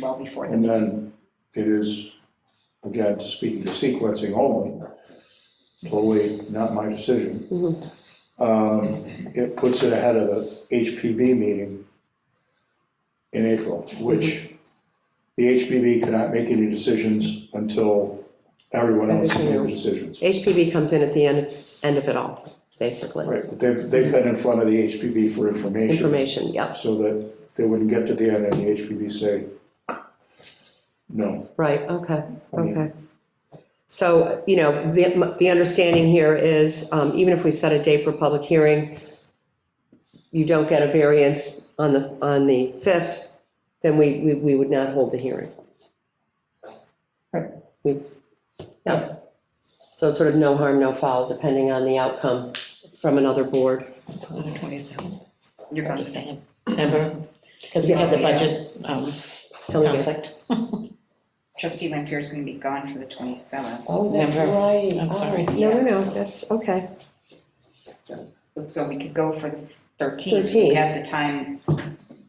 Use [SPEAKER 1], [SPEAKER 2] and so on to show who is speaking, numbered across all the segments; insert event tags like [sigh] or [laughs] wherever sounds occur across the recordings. [SPEAKER 1] well before the
[SPEAKER 2] And
[SPEAKER 1] meeting.
[SPEAKER 2] then it is, again, speaking to sequencing only, totally not my decision.
[SPEAKER 3] Mm-hmm.
[SPEAKER 2] Um, It puts it ahead of the HPB meeting in April,
[SPEAKER 3] Mm-hmm.
[SPEAKER 2] which the HPB cannot make any decisions until everyone else has
[SPEAKER 3] Everything
[SPEAKER 2] made the
[SPEAKER 3] else.
[SPEAKER 2] decisions.
[SPEAKER 3] HPV comes in at the end, end of it all, basically.
[SPEAKER 2] Right, but they've, they've been in front of the HPB for information,
[SPEAKER 3] Information, yeah,
[SPEAKER 2] so that they wouldn't get to the end and the HPB say, no.
[SPEAKER 3] right, okay,
[SPEAKER 2] I mean-
[SPEAKER 3] okay. So, you know, the, the understanding here is, um, even if we set a date for public hearing, you don't get a variance on the, on the 5th, then we, we, we would not hold the hearing.
[SPEAKER 2] Right.
[SPEAKER 3] We, yeah. So sort of no harm, no foul, depending on the outcome from another board.
[SPEAKER 4] The 27th,
[SPEAKER 1] You're
[SPEAKER 4] I'm
[SPEAKER 1] going
[SPEAKER 4] just
[SPEAKER 1] to,
[SPEAKER 4] saying, remember? Because we have the budget um,
[SPEAKER 3] Tell me again.
[SPEAKER 4] conflict.
[SPEAKER 1] trustee Lampier is going to be gone for the 27th.
[SPEAKER 3] Oh, that's
[SPEAKER 4] Never.
[SPEAKER 3] right.
[SPEAKER 4] I'm
[SPEAKER 3] Oh,
[SPEAKER 4] sorry.
[SPEAKER 3] No, no, no, that's, okay.
[SPEAKER 1] So- So we could go for the 13th. We
[SPEAKER 3] 13th.
[SPEAKER 1] have the time,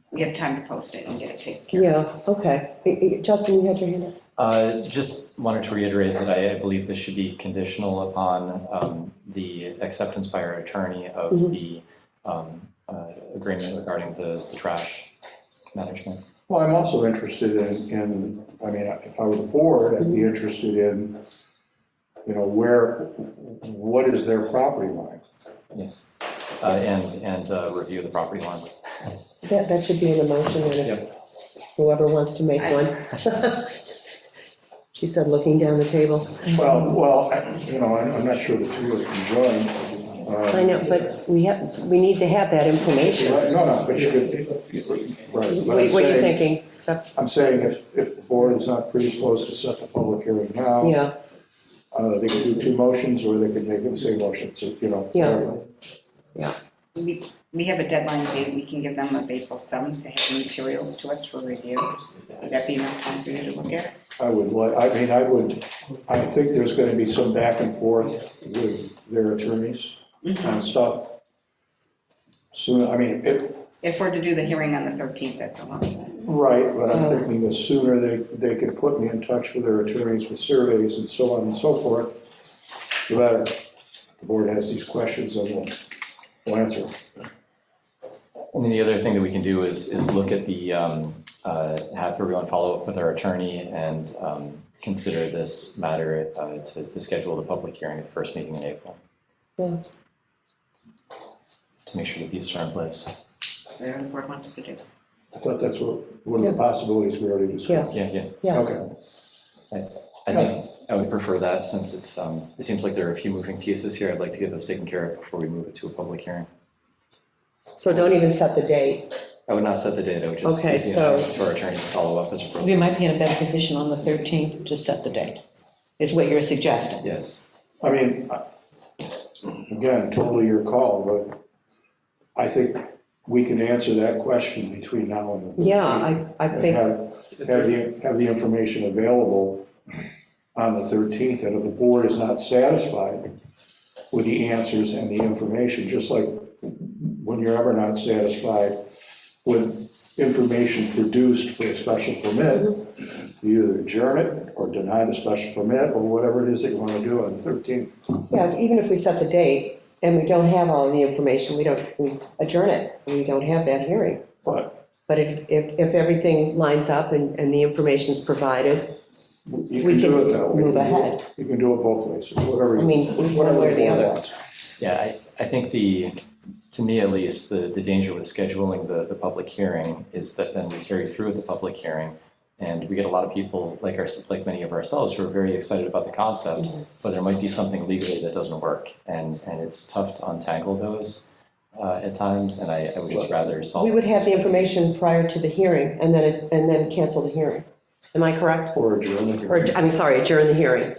[SPEAKER 1] we have time to post it and get it taken care of.
[SPEAKER 3] Yeah, okay. I- I- Justin, you had your hand up.
[SPEAKER 5] Uh, Just wanted to reiterate that I I believe this should be conditional upon um, the acceptance by our attorney of
[SPEAKER 3] Mhm.
[SPEAKER 5] the um, uh, agreement regarding the the trash management.
[SPEAKER 2] Well, I'm also interested in, in, I mean, if I were the board, I'd
[SPEAKER 3] Mm-hmm.
[SPEAKER 2] be interested in, you know, where, what is their property line?
[SPEAKER 5] Yes. Uh, And, and uh, review the property line.
[SPEAKER 3] That, that should be in the motion, and if whoever wants to make one. [laughs] She said, looking down the table. Mm-hmm.
[SPEAKER 2] Well, well, I- you know, I'm I'm not sure the two are conjoined. uh,
[SPEAKER 3] I know, but we have, we need to have that information.
[SPEAKER 2] right, No, no, but you could, right. but I'm
[SPEAKER 3] Wait, What are you
[SPEAKER 2] saying-
[SPEAKER 3] thinking? Except-
[SPEAKER 2] I'm saying if, if the board is not predisposed to set the public hearing now,
[SPEAKER 3] Yeah,
[SPEAKER 2] uh, they could do two motions, or they could make the same motion, so, you know.
[SPEAKER 3] Yeah.
[SPEAKER 2] whatever.
[SPEAKER 1] We, we have a deadline date, we can give them of April 7th to have the materials to us for review. Would that be enough time for you to look at it?
[SPEAKER 2] I would, li- I mean, I would, I think there's gonna be some back and forth with their attorneys on stuff. So, I mean, it,
[SPEAKER 1] If we're to do the hearing on the 13th, that's a lot of time.
[SPEAKER 2] right, but I'm
[SPEAKER 3] Yeah.
[SPEAKER 2] thinking the sooner they, they could put me in touch with their attorneys with surveys and so on and so forth, the better. The board has these questions and we'll, we'll answer.
[SPEAKER 5] And then the other thing that we can do is, is look at the, um, uh, have everyone follow up with our attorney and um, consider this matter uh, to, to schedule the public hearing at the first meeting in April.
[SPEAKER 3] Yeah.
[SPEAKER 5] To make sure that these are in place.
[SPEAKER 1] Whatever the board wants to do.
[SPEAKER 2] I thought that's what, one of the
[SPEAKER 3] Yeah.
[SPEAKER 2] possibilities we already discussed.
[SPEAKER 5] Yeah, yeah.
[SPEAKER 3] Yeah.
[SPEAKER 2] Okay,
[SPEAKER 5] I think I would prefer that since it's, um, it seems like there are a few moving pieces here. I'd like to get those taken care of before we move it to a public hearing.
[SPEAKER 3] so don't even set the date.
[SPEAKER 5] I would not set the date. I would just.
[SPEAKER 3] Okay,
[SPEAKER 5] leave the instruction To our attorney to follow up as
[SPEAKER 4] We
[SPEAKER 5] appropriate.
[SPEAKER 4] might be in a better position on the 13th to set the date, is what you're suggesting.
[SPEAKER 5] Yes.
[SPEAKER 2] I mean, I- again, totally your call, but I think we can answer that question between now and the.
[SPEAKER 3] Yeah,
[SPEAKER 2] 13th.
[SPEAKER 3] I, I
[SPEAKER 2] and
[SPEAKER 3] think,
[SPEAKER 2] have, have the, have the information available on the 13th, and if the board is not satisfied with the answers and the information, just like when you're ever not satisfied with information produced for a special permit, you either adjourn it or deny the special permit, or whatever it is that you want to do on the 13th.
[SPEAKER 3] yeah, even if we set the date and we don't have all the information, we don't, we adjourn it. We don't have that hearing.
[SPEAKER 2] But
[SPEAKER 3] But if, if, if everything lines up and, and the information's provided,
[SPEAKER 2] you
[SPEAKER 3] We
[SPEAKER 2] can do
[SPEAKER 3] can
[SPEAKER 2] it that way.
[SPEAKER 3] move ahead.
[SPEAKER 2] You can do it both ways, whatever.
[SPEAKER 3] I
[SPEAKER 2] you-
[SPEAKER 3] mean, one
[SPEAKER 2] whatever
[SPEAKER 3] way or the
[SPEAKER 2] board
[SPEAKER 3] other.
[SPEAKER 2] wants.
[SPEAKER 5] Yeah, I, I think the, to me at least, the, the danger with scheduling the, the public hearing is that then we carry through with the public hearing. And we get a lot of people, like our, like many of ourselves, who are very excited about the concept,
[SPEAKER 3] Mm-hmm.
[SPEAKER 5] but there might be something legally that doesn't work. And, and it's tough to untangle those uh, at times, and I, I would just rather solve.
[SPEAKER 3] We would have the information prior to the hearing and then, it- and then cancel the hearing. Am I correct?
[SPEAKER 2] Or adjourn. it.
[SPEAKER 3] Or, I'm sorry, adjourn the hearing.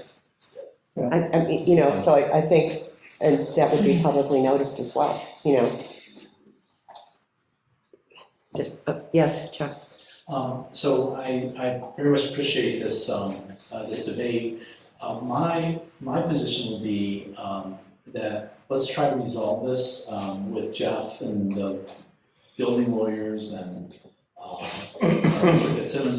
[SPEAKER 2] Yeah.
[SPEAKER 3] I, I mean, you know, so I, I think, and that would be publicly noticed as well, you know. Just, uh, yes, Chuck.
[SPEAKER 6] Um, So I, I very much appreciate this, um, uh, this debate. Uh, My, my position would be um, that let's try to resolve this um, with Jeff and the building lawyers and um, uh, Simmons